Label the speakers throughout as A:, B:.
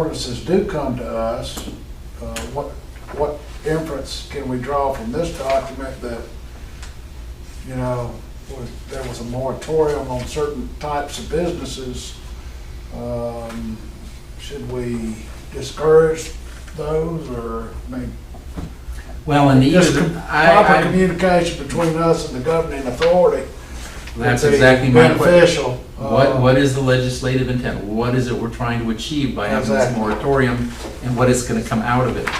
A: ordinances do come to us, uh, what, what inference can we draw from this document that, you know, was- there was a moratorium on certain types of businesses? Um, Should we discourage those or, I mean,
B: Well, and the,
A: just com-
B: I,
A: proper
B: I,
A: communication between us and the governing authority? would
B: that's
A: be
B: exactly my question.
A: Beneficial.
B: What,
A: Uh,
B: what is the legislative intent? What is it we're trying to achieve by having this
A: Exactly.
B: moratorium? And what is gonna come out of it,
A: Uh,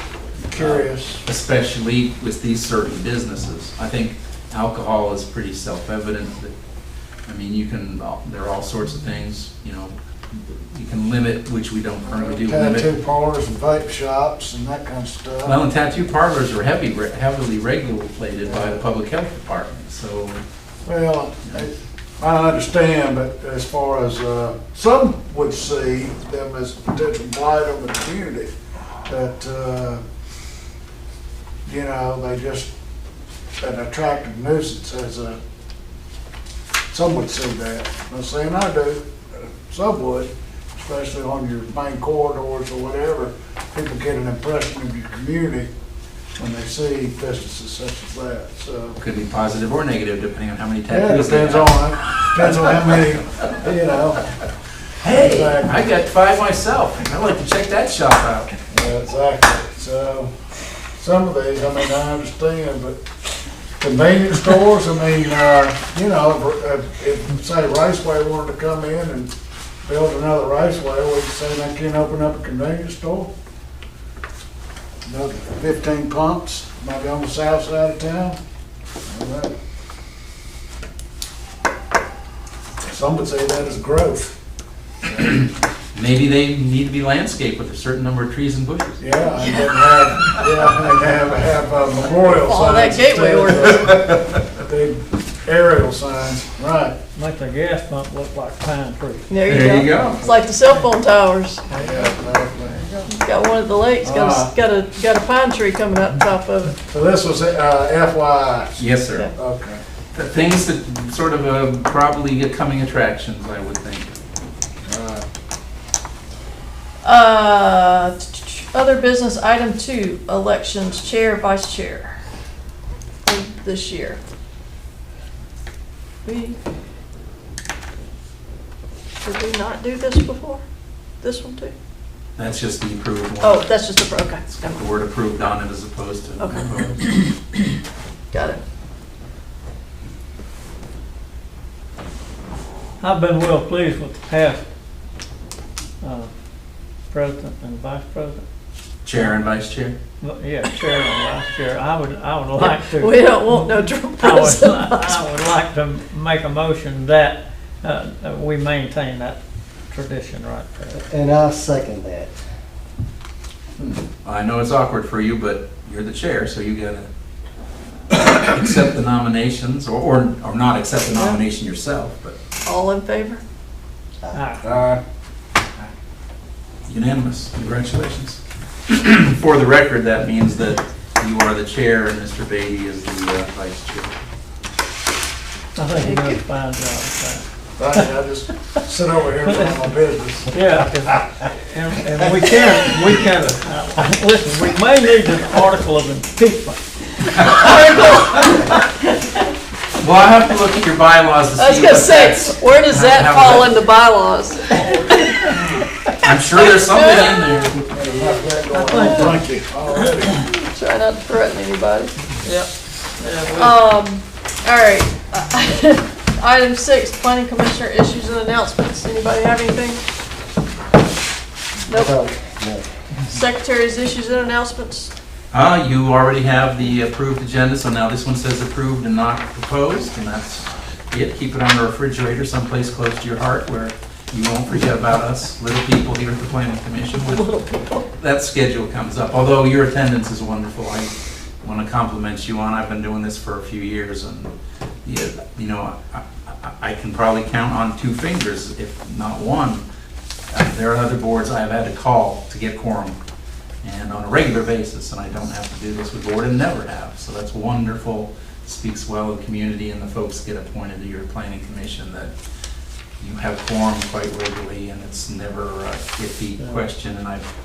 A: Curious.
B: especially with these certain businesses? I think alcohol is pretty self-evident that, I mean, you can, there are all sorts of things, you know, you can limit, which we don't currently uh, do, limit
A: Tattoo parlors and vape shops and that kind of stuff.
B: Well, and tattoo parlors are heavy, heavily regulated by the public health department, so,
A: Well, I- I understand, but as far as, uh, some would see them as potential blight on the community, that, uh, you know, they just, an attractive nuisance as a, some would see that. Not saying I do, some would, especially on your main corridors or whatever. People get an impression of your community when they see businesses such as that, so.
B: could be positive or negative depending on how many
A: Yeah, it
B: tattoos they
A: depends
B: have.
A: on, depends on how many, you know,
B: Hey, I got five myself, I'd like to check that shop out.
A: yeah, exactly. So, some of these, I mean, I understand, but convenience stores, I mean, uh, you know, if, if, say, Raceway wanted to come in and build another Raceway, would you say they can't open up a convenience store? Another fifteen pumps, maybe on the south side of town? I don't know. Some would say that is growth.
B: Maybe they need to be landscaped with a certain number of trees and bushes.
A: Yeah, and then have, yeah, and have, have uh, memorial signs.
C: Follow that gateway
A: ordinance. Big aerial signs, right.
D: Make the gas pump look like pine tree.
C: There you go. It's like the cell phone towers.
A: Yeah, exactly.
C: It's got one at the lake, it's got a, got a, got a pine tree coming out the top of it.
A: So this was uh, FYI.
B: Yes, sir.
A: Okay.
B: The Things that sort of uh, probably get coming attractions, I would think.
A: all right.
C: Uh, other business, item two, elections, chair, vice chair for this year. We, did we not do this before? This one too?
B: That's just the approved one.
C: Oh, that's just the, okay,
B: It's got
C: never
B: the
C: mind.
B: word approved on it as opposed to
C: Okay.
B: proposed.
C: got it.
D: I've been well pleased with the past uh, president and vice president.
B: Chair and vice chair.
D: But Yeah, chair and vice chair. I would, I would like to.
C: We don't want no Trump
D: I would,
C: president.
D: I would like to make a motion that uh, that we maintain that tradition right there.
E: And I second that.
B: I know it's awkward for you, but you're the chair, so you gotta accept the nominations, or, or or not accept the nomination yourself, but
C: All in favor?
D: Aye.
A: All right.
B: unanimous, congratulations. For the record, that means that you are the chair and Mr. Beatty is the uh, vice chair.
D: I think you done a fine job.
A: Thank you, I just sit over here and run my business.
D: so. Yeah, 'cause- and, and we can, we can, uh, listen, we may need an article of impeachment.
B: Well, I have to look at your bylaws to see.
C: I was gonna
B: what
C: say,
B: that's-
C: where does that
B: Have
C: fall
B: that.
C: in the bylaws?
B: I'm sure there's something in
A: Had
B: there.
A: enough of that going on. Thank you. Already.
C: Try not to threaten anybody.
D: Yep. Yeah, we-
C: Um, all right. uh, Item six, planning commissioner issues and announcements. Anybody have anything? Nope.
E: So,
A: Uh,
E: no.
C: Secretary's issues and announcements.
B: Uh, you already have the approved agenda, so now this one says approved and not proposed, and that's it. Keep it on the refrigerator someplace close to your heart where you won't forget about us, little people here at the planning commission. when
C: Little people.
B: That schedule comes up, although your attendance is wonderful. I want to compliment you on, I've been doing this for a few years and, yeah, you know, I- I- I can probably count on two fingers, if not one. Uh, There are other boards I've had to call to get quorum and on a regular basis, and I don't have to do this with board and never have. So that's wonderful, speaks well of the community and the folks that get appointed to your planning commission that you have quorum quite regularly, and it's never a iffy
D: Yeah.
B: question, and I've